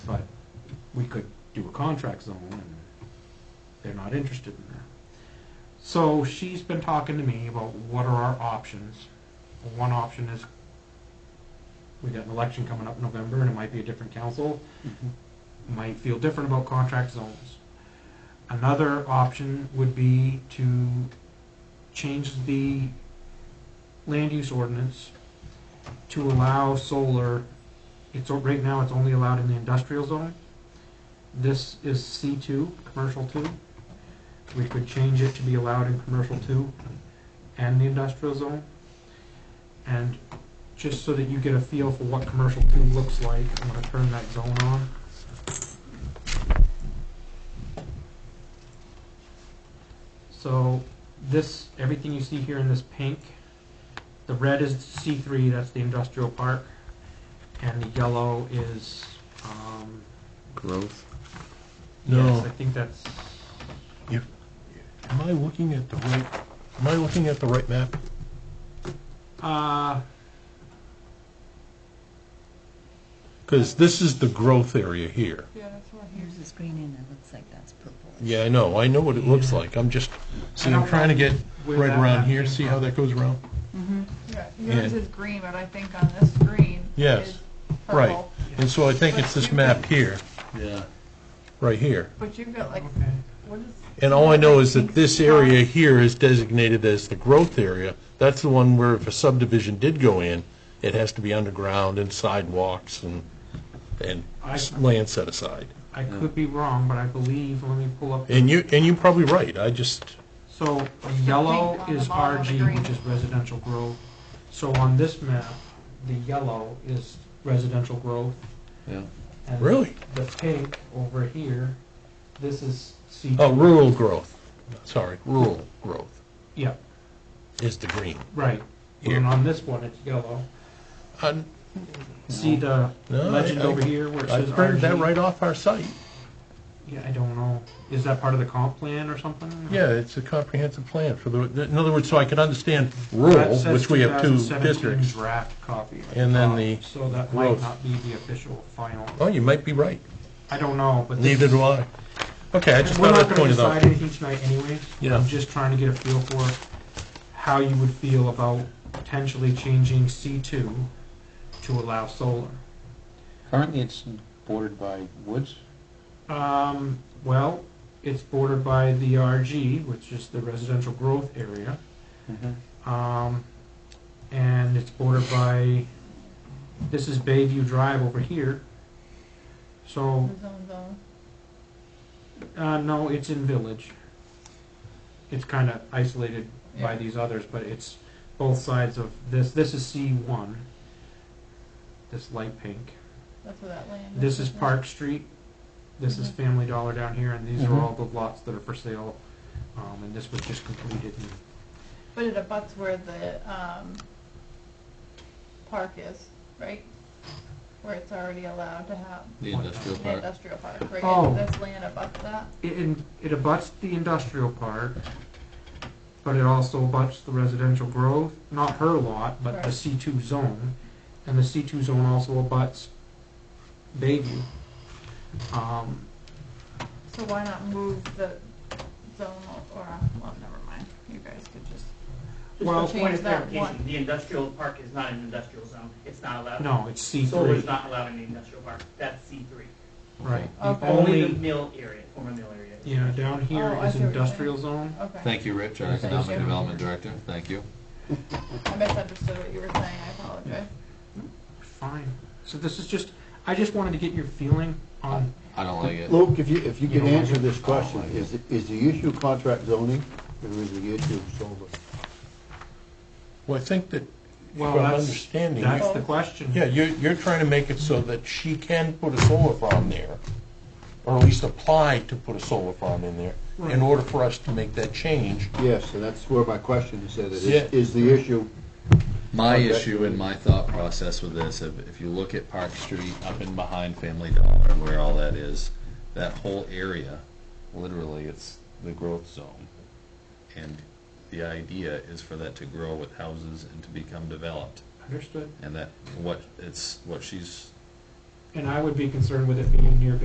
we could do a contract zone, and they're not interested in that. So she's been talking to me about what are our options. One option is we got an election coming up in November, and it might be a different council, might feel different about contract zones. Another option would be to change the land use ordinance to allow solar, it's, o- right now, it's only allowed in the industrial zone. This is C two, commercial two. We could change it to be allowed in commercial two and the industrial zone. And just so that you get a feel for what commercial two looks like, I'm gonna turn that zone on. So this, everything you see here in this pink, the red is C three, that's the industrial park, and the yellow is, um, Growth. yes, No. I think that's, Am I looking at the right, am I looking at the right map? uh, Because this is the growth area here. Yeah, that's one Here's this green and it looks like that's purple. Yeah, I know, I know what it looks Yeah. like, I'm just, see, I I'm don't trying to know get where right that around map here, came see from. how that goes around? Mm-hmm. Yeah, yours Yeah. is green, but I think on this green Yes, is right. purple. And so I think it's this map here, Yeah. right here. But you've got like, Okay. what is? And all I know is that Pink this spot. area here is designated as the growth area. That's the one where if a subdivision did go in, it has to be underground and sidewalks and, and I- s- land set aside. I could be wrong, but I believe, let me pull up. And you, and you're probably right, I just, So the the yellow pink on is the bottom of the RG, green? which is residential growth. So on this map, the yellow is residential growth. Yeah. and Really? The pink over here, this is C. oh, rural growth, sorry, rural growth Yeah, is the green. right. Here. And on this one, it's yellow. I- See the No, I- legend I- over here where it I says RG? printed that right off our site. Yeah, I don't know. Is that part of the comp plan or something? Yeah, it's a comprehensive plan for the, in other words, so I could understand That rural, says which we have two 2017 districts. Draft copy. at And then top, the So that might growth. not be the official final. Oh, you might be right. I don't know, but. this Neither is- do I. Okay, I just We're thought not I'd gonna point it decide out. anything tonight anyways. Yeah. I'm just trying to get a feel for how you would feel about potentially changing C two to allow solar. Currently, it's bordered by woods. Um, well, it's bordered by the RG, which is the residential growth area. Um, and it's bordered by, this is Bayview Drive over here. So, The zone zone. uh, no, it's in Village. It's kind of isolated by Yeah. these others, but it's both sides of this. This is C1, this light pink. That's where that land is. This is Mm-hmm. isn't it? Park Street. This is Mhm. Family Dollar down here, and these are Mhm. all the lots that are for sale. Um, and this was just completed. And But it abuts where the, um, park is, right? Where it's already allowed to have The industrial an park. industrial park, right? Oh. And This land abuts that, it, in- it abuts the industrial park, but it also abuts the residential growth, not her lot, but the Right. C2 zone. And the C2 zone also abuts Bayview. Um, so why not move the zone o- or, well, never mind, you guys could just, Well, Just a point change of that clarification, one. the industrial park is not an industrial zone, it's not allowed. no, it's Solar is C3, not allowed in the industrial park, that's C three. right. The Okay. Only the only, mill area, former mill area. yeah, down Oh, here I is see what you're saying. industrial zone. okay. Thank you, Rich, our Thank you. Economic Development Director. Thank you. I misunderstood what you were saying, I apologize. Fine. So this is just, I just wanted to get your feeling on, I don't like it. Luke, if you, if you You can don't like answer it? this question, I don't like is, is the issue contract zoning or is the issue solar? Well, I think that, Well, from that's- understanding, you- that's Oh. the question. yeah, you're, you're trying to make it so that she can put a solar farm there, or at least apply to put a solar farm in there, Right. in order for us to make that change. Yes, and that's where my question is, that it Yeah. is, is the issue, My Okay. issue and my thought process with this, if, if you look at Park Street up and behind Family Dollar, where all that is, that whole area, literally, it's the growth zone. And the idea is for that to grow with houses and to become developed. Understood. And that, what, it's, what she's And I would be concerned with it being near